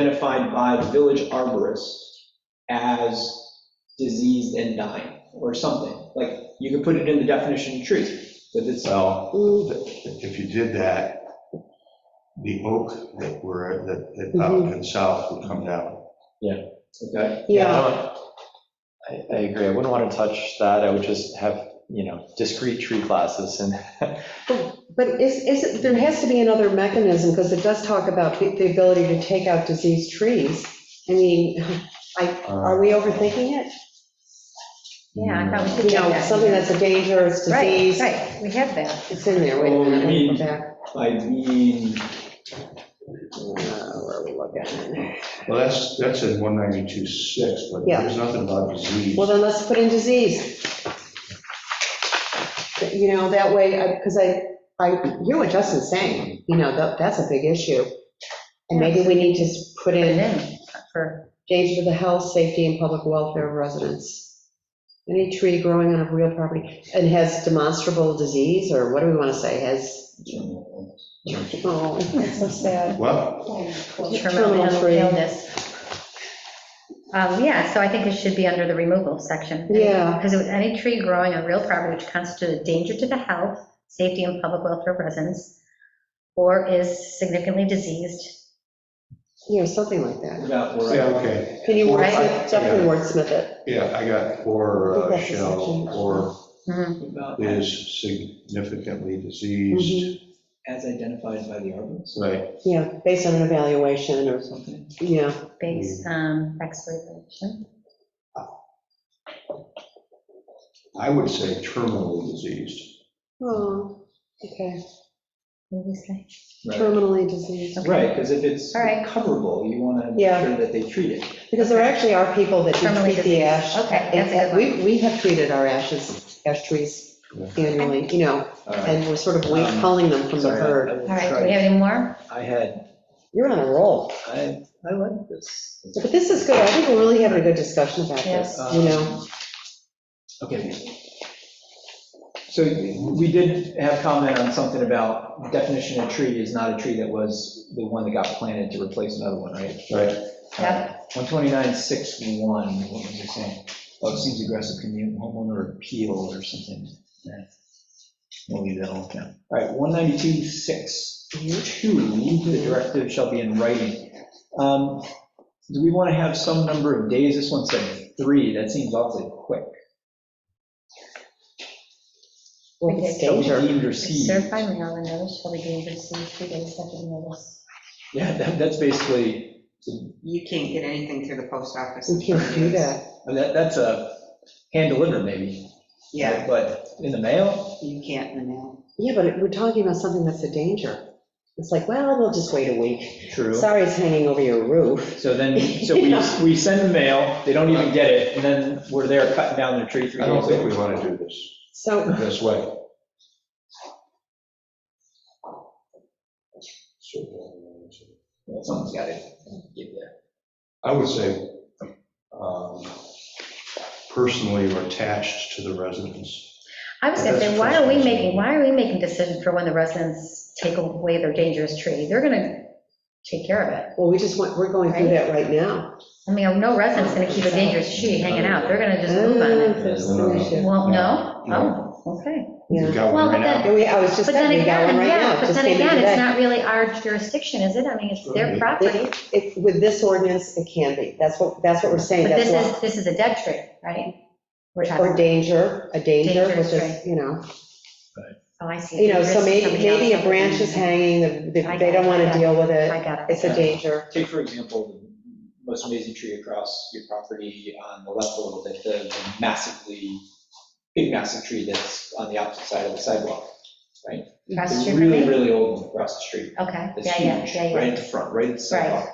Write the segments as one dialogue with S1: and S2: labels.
S1: identified by the village arborist as diseased and dying, or something. Like, you could put it in the definition of tree, but it's,
S2: Well, if you did that, the oak that were, that, that
S3: Mm-hmm.
S2: out and south would come down.
S1: okay,
S3: Yeah,
S4: I, I agree. I wouldn't want to touch that. I would just have, you know, discrete tree classes and
S3: but is, is, it- there has to be another mechanism, because it does talk about the the ability to take out diseased trees. I mean, are
S4: uh,
S3: we overthinking it?
S5: Yeah, I thought we
S3: You
S5: should have
S3: know,
S5: that.
S3: something that's a dangerous
S5: Right,
S3: disease,
S5: right, we have that.
S3: it's in there, wait a
S1: Oh, you
S3: minute, let me
S1: mean-
S3: go back.
S1: I mean,
S3: Uh, Where are we looking?
S2: Well, that's, that's in 192.6, but
S3: Yeah.
S2: there's nothing about disease.
S3: Well, then let's put in disease. You know, that way, because I, I, hear what Justin's saying, you know, that, that's a big issue. And maybe we need to s- put
S5: Put
S3: in
S5: it in for,
S3: danger to the health, safety, and public welfare of residents. Any tree growing on a real property and has demonstrable disease, or what do we want to say, has, oh,
S6: That's so sad.
S2: Well,
S5: terminal
S3: Terminal tree.
S5: illness. Um, Yeah, so I think it should be under the removal section.
S3: Yeah.
S5: Because any tree growing on real property which constitutes a danger to the health, safety, and public welfare of residents, or is significantly diseased.
S3: you know, something like that.
S1: about where I.
S2: yeah, okay,
S3: Can you
S5: Right.
S3: wordsmith, definitely wordsmith it?
S2: yeah, I got, or uh,
S3: I think that's a
S2: shall,
S3: section.
S2: or
S5: Mhm.
S1: About
S2: is significantly diseased,
S1: as identified by the
S3: Mm-hmm.
S1: arborist,
S2: right?
S3: Yeah, based on an evaluation or,
S1: something.
S3: yeah, Mm.
S5: Based on exploitation.
S2: I would say terminally diseased.
S3: oh, okay,
S5: What do we say?
S3: terminally diseased.
S1: Right, because if it's
S5: All right.
S1: recoverable, you want to make
S3: Yeah.
S1: sure that they treat it.
S3: Because there actually are people that do
S5: Terminally
S3: treat the
S5: diseased.
S3: ash.
S5: Okay, that's a good
S3: And We, we have treated our ashes, ash trees annually, you know,
S1: All right.
S3: and we're sort of wait- culling them from the
S1: Sorry, I- I
S3: herd.
S1: will
S5: All right, do
S1: try.
S5: we have any more?
S1: I had,
S3: You're on a roll.
S1: I, I like this.
S3: But this is good, I think we're really having a good discussion about this,
S1: Yes.
S3: you know?
S1: Um, Okay. So we did have comment on something about definition of tree is not a tree that was the one that got planted to replace another one, right?
S2: Right.
S5: Yep.
S1: 129.61, what was it saying? Oh, it seems aggressive, community homeowner appeal or something. Yeah. We'll leave that alone. yeah. All right, 192.62, the directive shall be in writing. Um, Do we want to have some number of days? This one said three, that seems awfully quick.
S3: Well, it's
S5: Okay.
S1: Shall be
S3: danger.
S1: deemed received.
S5: Served by mail and notice shall be given received three days after the notice.
S1: Yeah, that- that's basically,
S7: You can't get anything through the post office.
S3: We can't do that.
S1: that- that's a hand delivered maybe.
S7: Yeah,
S1: But in the mail,
S7: you can't in the mail.
S3: Yeah, but it- we're talking about something that's a danger. It's like, well, we'll just wait a week.
S1: true.
S3: Sorry it's hanging over your roof.
S1: So then, so we, we send the mail, they don't even get it, and then we're there cutting down their tree three
S2: I don't
S1: days
S2: think
S1: later.
S2: we want to do this
S3: So,
S2: this way.
S1: Well, Someone's got to get there.
S2: I would say um, personally or attached to the residents.
S5: I was gonna say,
S2: That's
S5: why are we
S2: first
S5: making,
S2: reason.
S5: why are we making decisions for when the residents take away their dangerous tree? They're gonna take care of it.
S3: well, we just want, we're going through that right now.
S5: I mean, no resident's gonna keep a dangerous tree hanging out, they're gonna just move on
S3: Ah,
S5: it.
S3: there's an issue.
S5: Well, no? Oh, okay.
S2: We've
S3: Yeah,
S2: got
S5: Well,
S2: one
S5: but
S2: right
S3: Yeah, we- I was
S5: But
S3: just
S5: then
S3: saying, we got one
S5: again,
S3: right now,
S5: yeah,
S3: it
S5: but
S3: just
S5: then
S3: came in
S5: again, it's
S3: today.
S5: not really our jurisdiction, is it? I mean, it's their
S2: Right.
S5: property,
S3: It- With this ordinance, it can be, that's what, that's what we're saying,
S5: but
S3: that's
S5: this
S3: why.
S5: is, this is a dead tree, right? We're
S3: Or
S5: talking,
S3: danger, a danger,
S5: Dangerous,
S3: which is, you know.
S5: oh, I see.
S3: You know, so
S5: Risk
S3: maybe,
S5: somebody
S3: maybe a
S5: else.
S3: branch is hanging, the- the- they don't want to deal with
S5: I
S3: it,
S5: got it.
S3: it's a danger.
S1: Take, for example, the most amazing tree across your property on the left a little bit, the the massively, big massive tree that's on the opposite side of the sidewalk.
S5: Across the
S1: The
S5: street from
S1: really,
S5: me?
S1: really old one across the street.
S5: Okay,
S1: It's
S5: yeah, yeah,
S1: huge,
S5: yeah, yeah.
S1: right in front, right at the sidewalk.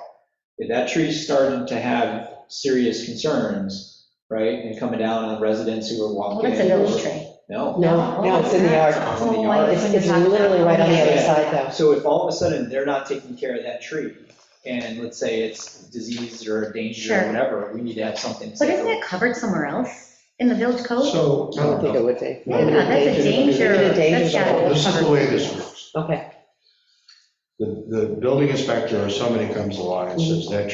S1: If that tree's starting to have serious concerns, right, and coming down on residents who are
S5: Well,
S1: walking.
S5: that's a
S1: in or-
S5: village tree.
S1: No.
S3: No, no, it's in the yard.
S5: Oh, I
S3: It's,
S5: couldn't
S3: it's
S5: talk about
S3: literally right on the
S5: it.
S3: other side, though.
S1: So if all of a sudden they're not taking care of that tree, and let's say it's diseased or a danger or
S5: Sure.
S1: whatever, we need to have something. to
S5: But
S1: say.
S5: isn't it covered somewhere else in the village
S2: now.
S5: code?
S2: So,
S3: I don't think it would be.
S2: Yeah,
S5: Yeah, that's a danger.
S3: It's a danger
S5: That's gotta
S3: zone.
S5: be
S2: this is the
S5: covered.
S2: way this works.
S3: Okay.
S2: The, the building inspector or somebody comes along and says, that